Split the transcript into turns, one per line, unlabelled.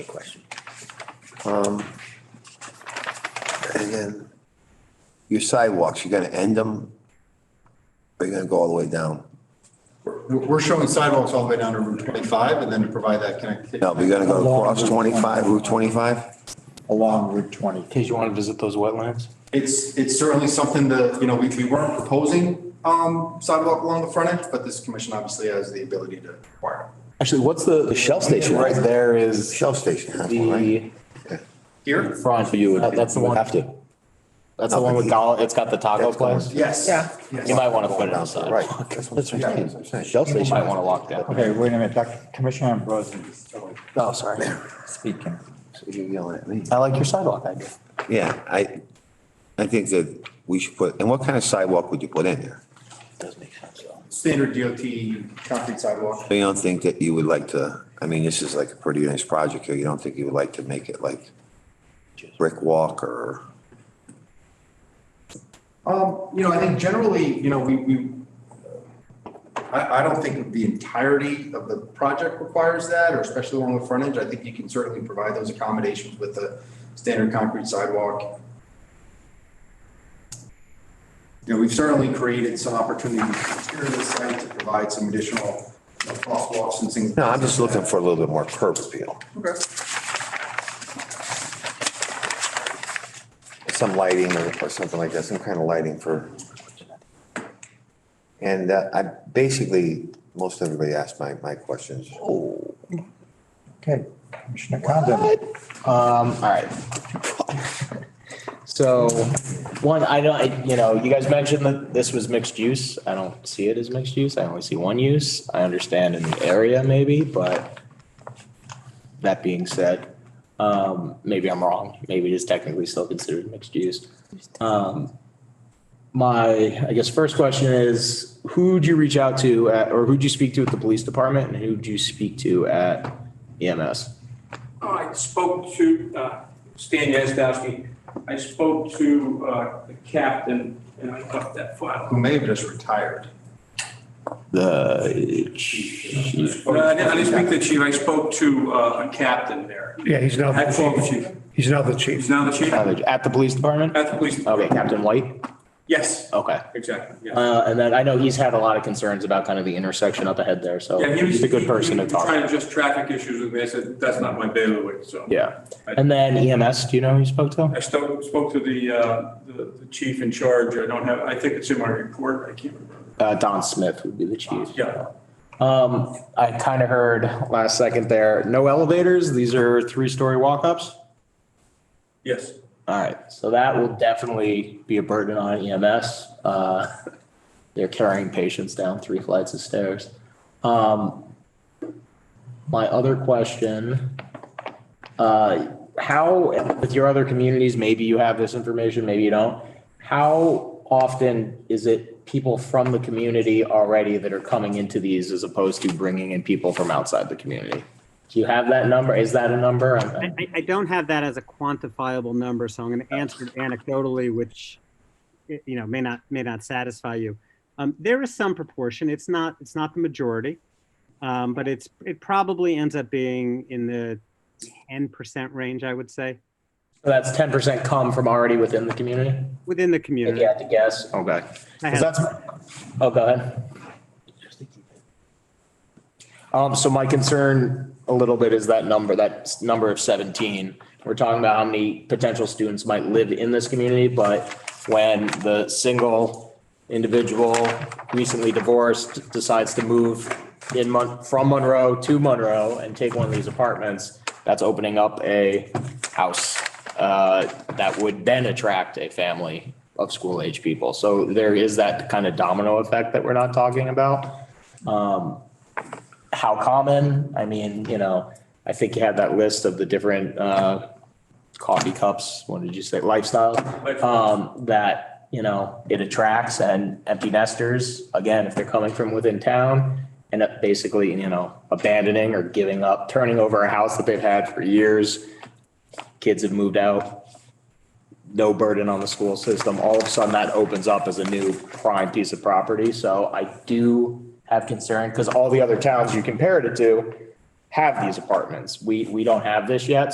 question. Um, And then your sidewalks, you're gonna end them? Or you're gonna go all the way down?
We're we're showing sidewalks all the way down to Route 25 and then to provide that connectivity.
No, but you're gonna go across twenty-five, Route twenty-five?
along Route 20.
In case you want to visit those wetlands.
It's, it's certainly something that, you know, we, we weren't proposing um, sidewalk along the front edge, but this commission obviously has the ability to require. it.
Actually, what's the, the Shell station right there is
Shell station has one, right?
the,
Here?
front,
You
Uh,
would,
that's the
would
one.
have to.
that's the one with Donald, it's got the taco
That's the one.
place.
Yes.
Yeah.
Yes.
You might want to put it
Down to the
outside.
Right. That's what I'm saying, that's what I'm saying.
Shell
You
station.
might want to lock down.
Okay, wait a minute, Dr. Commissioner Ambrosi is still
Oh, sorry.
speaking.
So You're yelling at me.
I like your sidewalk idea.
Yeah, I, I think that we should put, and what kind of sidewalk would you put in there?
Does make sense though.
Standard DOT concrete sidewalk.
So you don't think that you would like to, I mean, this is like a pretty nice project here, you don't think you would like to make it like brick walk or?
Um, you know, I think generally, you know, we, we, I, I don't think the entirety of the project requires that, or especially along the front edge. I think you can certainly provide those accommodations with a standard concrete sidewalk. You know, we've certainly created some opportunities here in the site to provide some additional you know, crosswalks and things.
No, I'm just looking for a little bit more curb appeal,
Okay.
some lighting or, or something like that, some kind of lighting for. And uh, I, basically, most everybody asked my, my questions.
Okay, Commissioner Condon.
Um, all right. So, one, I don't, I- you know, you guys mentioned that this was mixed use. I don't see it as mixed use. I only see one use. I understand in the area maybe, but that being said, um, maybe I'm wrong. Maybe it is technically still considered mixed use. Um, my, I guess, first question is, who'd you reach out to at, or who'd you speak to at the police department and who'd you speak to at E EMS?
Uh, I spoke to, uh, Stan Yazdowski, I spoke to uh, the captain, and I left that file.
Who may have just retired.
The
No, I didn't I didn't speak to the chief, I spoke to uh, a captain there.
Yeah, he's now the
Actual
chief.
chief,
He's now the
he's
chief.
now the chief at
at the police department?
the police.
Okay, Captain White.
Yes,
Okay.
exactly, yeah.
Uh, and then I know he's had a lot of concerns about kind of the intersection up ahead there, so
Yeah, he was-
he's a good
he-
person
he
to
was
talk.
Trying to just traffic issues with me, I said, that's not my bailiwick, so.
Yeah. And then EMS, do you know who you spoke to?
I spoke, spoke to the, uh, the the chief in charge, I don't have, I think it's in my report, I can't remember.
Uh, Don Smith would be the chief.
Yeah.
Um, I kind of heard last second there, no elevators. These are three-story walk-ups.
Yes,
All right, so that will definitely be a burden on EMS. Uh, They're carrying patients down three flights of stairs. Um, My other question, uh, how, with your other communities, maybe you have this information, maybe you don't. How often is it people from the community already that are coming into these as opposed to bringing in people from outside the community? Do you have that number? Is that a number?
I,
I'm-
I- I don't have that as a quantifiable number, so I'm going to answer it anecdotally, which y- you know may not may not satisfy you. Um, there is some proportion. It's not it's not the majority, um, but it's it probably ends up being in the 10% range, I would say,
That's ten percent come from already within the community?
within the
If
community.
you had to guess. Okay.
I
Because
had-
that's, oh, go ahead. Um, so my concern a little bit is that number, that s- number of seventeen. We're talking about how many potential students might live in this community, but when the single individual recently divorced decides to move in Mon, from Monroe to Monroe and take one of these apartments, that's opening up a house, uh, that would then attract a family of school age people. So there is that kind of domino effect that we're not talking about. Um, how common? I mean, you know, I think you had that list of the different uh, coffee cups. What did you say? Lifestyle. Um, that you know it attracts and empty nesters again if they're coming from within town and up basically you know abandoning or giving up, turning over a house that they've had for years. Kids have moved out. No burden on the school system. All of a sudden, that opens up as a new prime piece of property. So I do have concern because all the other towns you compared it to, have these apartments. We, we don't have this yet,